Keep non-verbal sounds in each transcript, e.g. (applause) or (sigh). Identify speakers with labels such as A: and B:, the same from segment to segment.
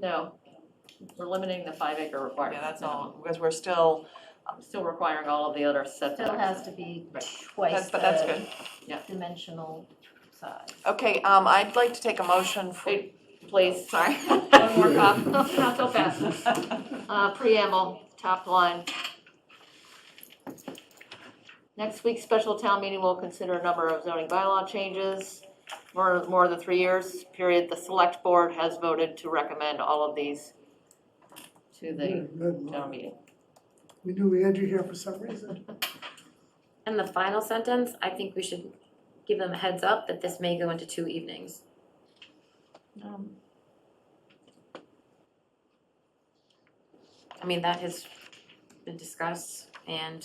A: No, we're limiting the five acre
B: Yeah,
A: requirement.
B: that's all, because we're still,
A: Still requiring all of the other setbacks.
C: Still has to be
A: Right.
C: twice
B: that's, but that's good.
C: the dimensional size.
B: Okay, um, I'd like to take a motion for,
A: Wait, Please,
B: (laughs) sorry.
A: one more
B: (laughs)
A: cop, not so fast. Uh, preamble, top line. Next week's special town meeting will consider a number of zoning bylaw changes. More, more than three years period, the select board has voted to recommend all of these to the
B: Hmm.
A: town meeting.
D: We knew we had you here for some reason.
E: And the final sentence, I think we should give them a heads up that this may go into two evenings.
C: Um,
E: I mean, that has been discussed and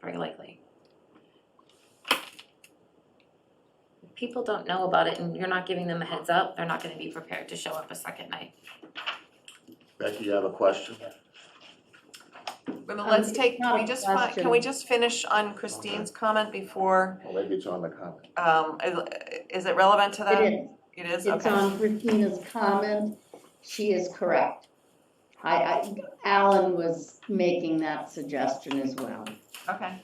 E: very likely. If people don't know about it and you're not giving them a heads up, they're not gonna be prepared to show up a second night.
F: Becky, you have a question?
B: Wait a minute, Let's take, can we just, fi- can we just finish on Christine's comment before,
F: Well, maybe it's on the comment.
B: um, is- is it relevant to that?
G: It
B: It
G: is,
B: is,
G: it's
B: okay.
G: on Christina's comment, she is correct. I, I, Alan was making that suggestion as well.
B: Okay.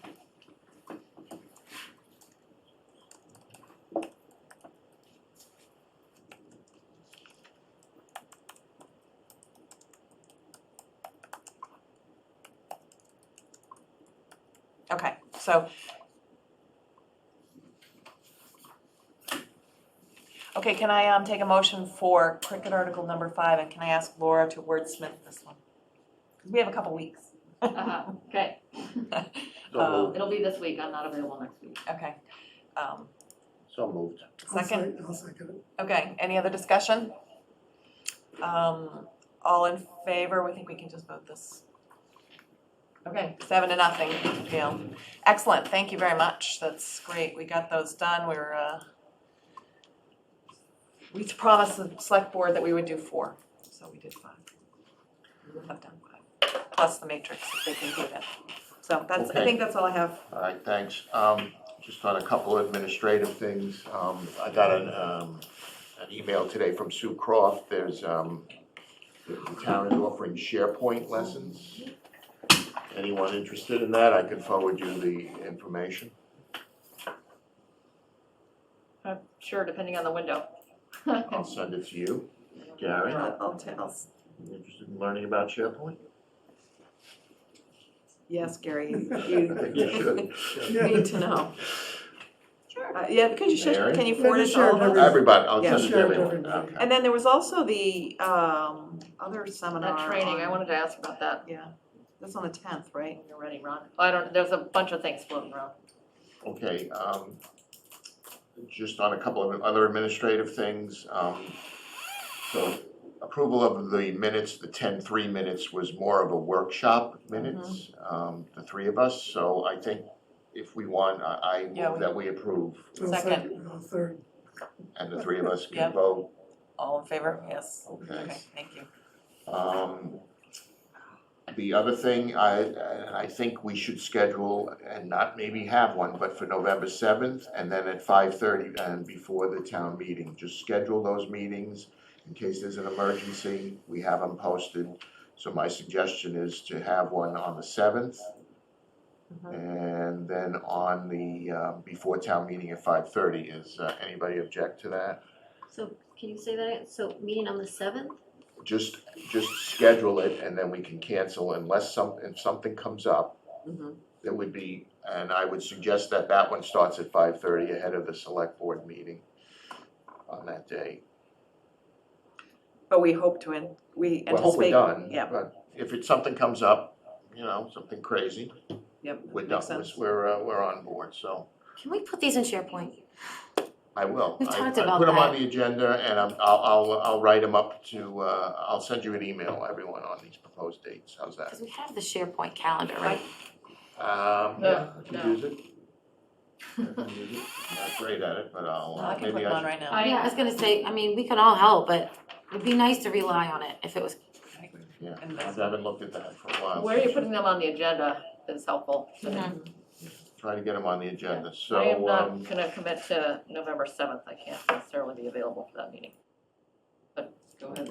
B: Okay, so. Okay, can I, um, take a motion for cricket article number five, and can I ask Laura to wordsmith this one? 'Cause We have a couple weeks.
A: Uh-huh, Okay,
F: So moved,
A: it'll be this week, I'm not available next week.
B: Okay, um,
F: so moved.
D: I'll
B: second,
D: sec- I'll second it.
B: okay, any other discussion? Um, all in favor, we think we can just vote this. Okay, seven to nothing, Gail. Excellent, thank you very much, that's great, we got those done, we were, uh, we promised the select board that we would do four, so we did five. We have done five, plus the matrix, if they can do that. So that's, I
F: Okay.
B: think that's all I have.
F: All right, thanks. Um, just on a couple of administrative things, um, I got an, um, an email today from Sue Croft. There's, um, the the town is offering SharePoint lessons. Anyone interested in that, I could forward you the information.
A: I'm Sure, depending on the window.
F: I'll send it to you. Gary,
B: I'll, I'll ta- I'll s-
F: you interested in learning about SharePoint?
B: yes, Gary,
F: I
B: you
F: think you should.
B: need to know.
C: Sure.
B: Uh, Yeah, because you should,
F: Mary?
B: can you
D: Let
B: forward
D: me
B: it to
D: share
B: all of
D: it
B: us?
D: every-
F: Everybody, I'll
B: Yeah.
F: send it to
D: Sure,
F: everyone,
D: everybody.
F: okay.
B: And then there was also the um other seminar.
A: That training, I
B: on-
A: wanted to ask about that.
B: Yeah, that's on the tenth, right?
A: You're ready, Ron. I don't, there's a bunch of things floating around.
F: Okay, um, just on a couple of other administrative things, um, so approval of the minutes, the ten-three minutes was more of a workshop minutes,
B: Mm-hmm.
F: um, the three of us, so I think if we want, I, I
B: Yeah,
F: move
B: we-
F: that we approve,
D: (laughs) I'll
B: Second.
D: I'll third.
F: and the three of us
B: Yeah.
F: can vote,
B: All in favor? Yes.
F: okay?
B: Okay, thank you.
F: Um, the other thing, I, and I think we should schedule, and not maybe have one, but for November seventh, and then at five thirty, and before the town meeting, just schedule those meetings. In case there's an emergency, we have them posted, so my suggestion is to have one on the seventh. Mm-hmm. And then on the, uh, before town meeting at five thirty, is, uh, anybody object to that?
E: So can you say that again? So meeting on the seventh?
F: just, just schedule it and then we can cancel unless some, if something comes up.
B: Mhm.
F: That would be, and I would suggest that that one starts at five thirty ahead of the select board meeting on that day.
B: But we hope to, in- we anticipate.
F: Well, hope we're done,
B: Yeah,
F: but if it's, something comes up, you know, something crazy,
B: yep,
F: we're
B: makes
F: done,
B: sense.
F: we're, uh, we're on board, so
E: Can we put these in SharePoint?
F: I will.
E: We've
F: I-
E: talked
F: I
E: about
F: put them on
E: that.
F: the agenda and I'm, I'll, I'll, I'll write them up to, uh, I'll send you an email, everyone, on these proposed dates, how's that?
E: Because we have the SharePoint calendar, right?
F: Um, yeah,
A: No,
F: I can
A: Uh, no.
F: use it. I can use it. I'm Not great at it, but I'll,
B: No,
F: uh,
B: I can put
F: maybe
B: them
F: I
B: on
F: should.
B: right now.
A: I-
E: Yeah, I was gonna say, I mean, we can all help, but it'd be nice to rely on it if it was,
F: Yeah,
B: And
F: I
B: that's-
F: haven't looked at that for a while.
A: Where are you
F: so
A: putting them on the agenda is helpful. to me.
E: Mhm.
F: Try to get them on the
A: I
F: agenda,
A: am
F: Mm-hmm. so, um,
A: not gonna commit to November seventh, I can't necessarily be available for that meeting. But go ahead.